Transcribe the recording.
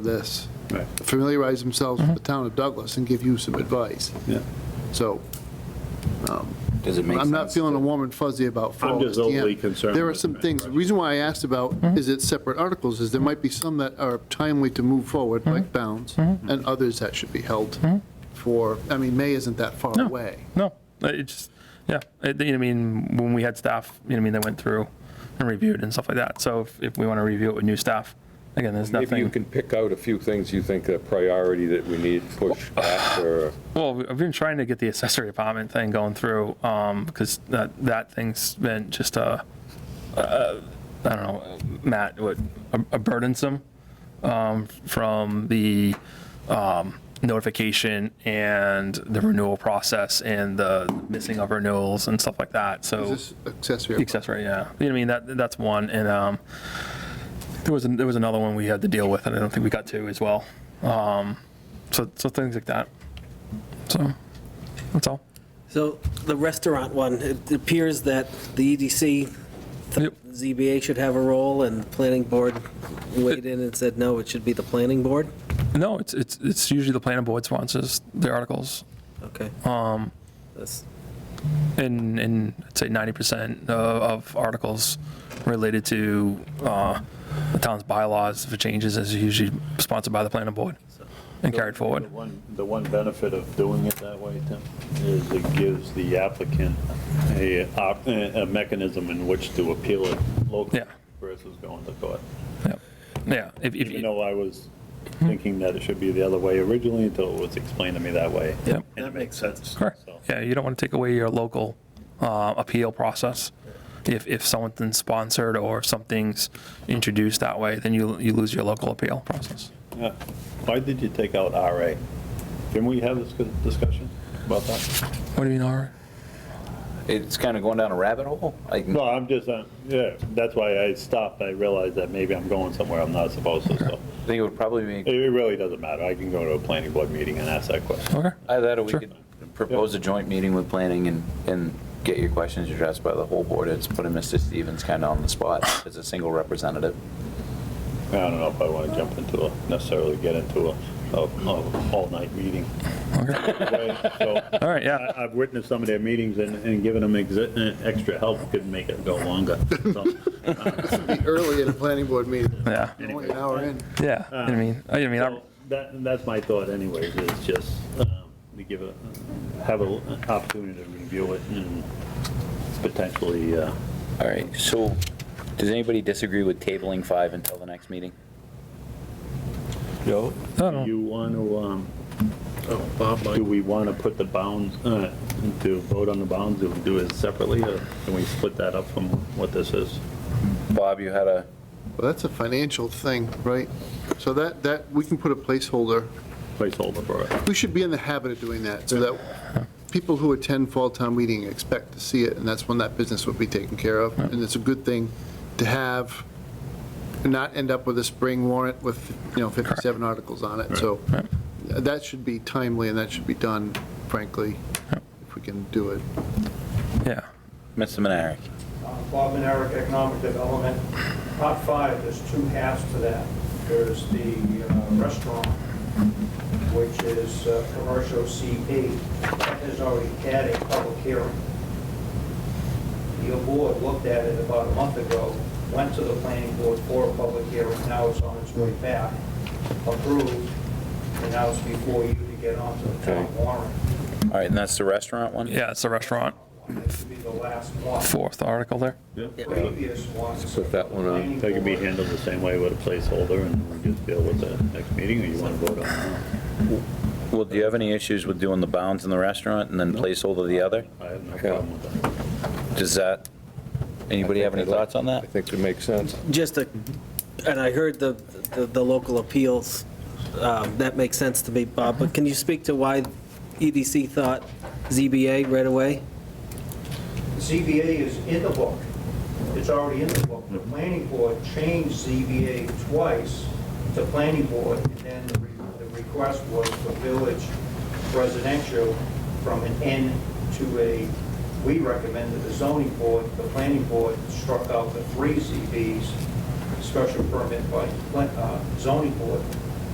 this, Right, familiarize themselves with the town of Douglas and give you some advice. yeah. So um, Does it make sense? I'm not feeling to- a warm and fuzzy about fall. I'm It's just the end. overly concerned There are with some the things, the reason why I asked about, is it separate articles, is there might be some that are timely to move forward, like bounds, and others that should be held for, I mean, May isn't that far No. away. No, it just, yeah, I think- I mean, when we had staff, you know, I mean, they went through and reviewed and stuff like that. So if, if we want to review it with new staff, again, there's Maybe you nothing. can pick out a few things you think are priority that we need pushed back or, Well, we- I've been trying to get the accessory apartment thing going through, um, because that, that thing's been just a, a, I don't know, Matt, what, a- a burdensome, um, from the, um, notification and the renewal process and the missing of renewals and stuff like that, so. Is this accessory? Accessory, yeah. You know, what I mean, that, that's one, and, um, there was, an- there was another one we had to deal with, and I don't think we got to as well. Um, so, so things like that. So, that's all. So the restaurant one, it appears that the E EDC, Yep. ZBA should have a role, and the planning board weighed in and said, no, it should be the planning board? No, it's, it's, it's usually the planning board sponsors the articles, Okay. That's- and, and I'd say ninety percent of, of articles related to, uh, the town's bylaws, if it changes, is usually sponsored by the planning board and carried The forward. one, the one benefit of doing it that way, Tim, is it gives the applicant a, op- a mechanism in which to appeal it locally Yeah. versus going to court. Yep. Yeah, if, if. Even though I was Hmm. thinking that it should be the other way originally until it was explained to me that way. Yep. And it makes sense. Correct. so. Yeah, you don't want to take away your local uh, appeal process. If, if something's sponsored or something's introduced that way, then you, you lose your local appeal process. Yeah. Why did you take out RA? Can we have this discussion about that? What do you mean, all right? It's kind of going down a rabbit hole. I can, No, I'm just, uh, yeah, that's why I stopped. I realized that maybe I'm going somewhere I'm not supposed to, so. I think it would probably be, It really doesn't matter. I can go to a planning board meeting and ask that question. Okay, either that or we Sure. could propose a joint meeting with planning and, and get your questions addressed by the whole board. It's putting Mr. Stevens kind of on the spot as a single representative. I don't know if I want to jump into a, necessarily get into a, a, a all-night meeting. okay. So All right, yeah. I, I've witnessed some of their meetings and, and giving them exi- uh, extra help could make it go longer. So, uh, Be early at a planning board meeting, Yeah, only an hour in. yeah. You know what I mean, I you know what I mean, so That, that's my thought anyways, is just, um, to give a, have a- an opportunity to review it and potentially, uh, All right, so does anybody disagree with tabling five until the next meeting? Joe, I don't know. do you want to, um, do we want to put the bounds, uh, to vote on the bounds, do we do it separately, or can we split that up from what this is? Bob, you had a, Well, that's a financial thing, right? So that, that, we can put a placeholder Placeholder for it. We should be in the habit of doing that, so that people who attend fall town meeting expect to see it, and that's when that business will be taken care of. And it's a good thing to have, and not end up with a spring warrant with, you know, 57 articles on it. So that should be timely, and that should be done, frankly, if we can do it. yeah. Mr. Menard. Uh, Bob and Eric, Economic Development. Top five, there's two halves to that. There's the uh, restaurant, which is uh, commercial CP, that has already had a public hearing. Your board looked at it about a month ago, went to the planning board for a public hearing, now it's on its way back, approved, and now it's before you to get onto the town warrant. All right, and that's the restaurant one? Yeah, it's a restaurant, This would be the last one. fourth article there. Previous ones. Put that one on. That could be handled the same way with a placeholder, and we just deal with the next meeting, or you want to vote on it? Well, do you have any issues with doing the bounds in the restaurant and then placeholder the other? I have no problem with that. Does that, anybody have any thoughts on I that? think it makes sense. Just a, and I heard the, the- the local appeals, um, that makes sense to me, Bob, but can you speak to why EDC thought ZBA right away? ZBA is in the book. It's already in the book. The planning board changed ZBA twice to planning board, and then the re- the request was for village residential from an N to a, we recommended the zoning board, the planning board struck out the three ZBs, special permit by pla- uh, zoning board,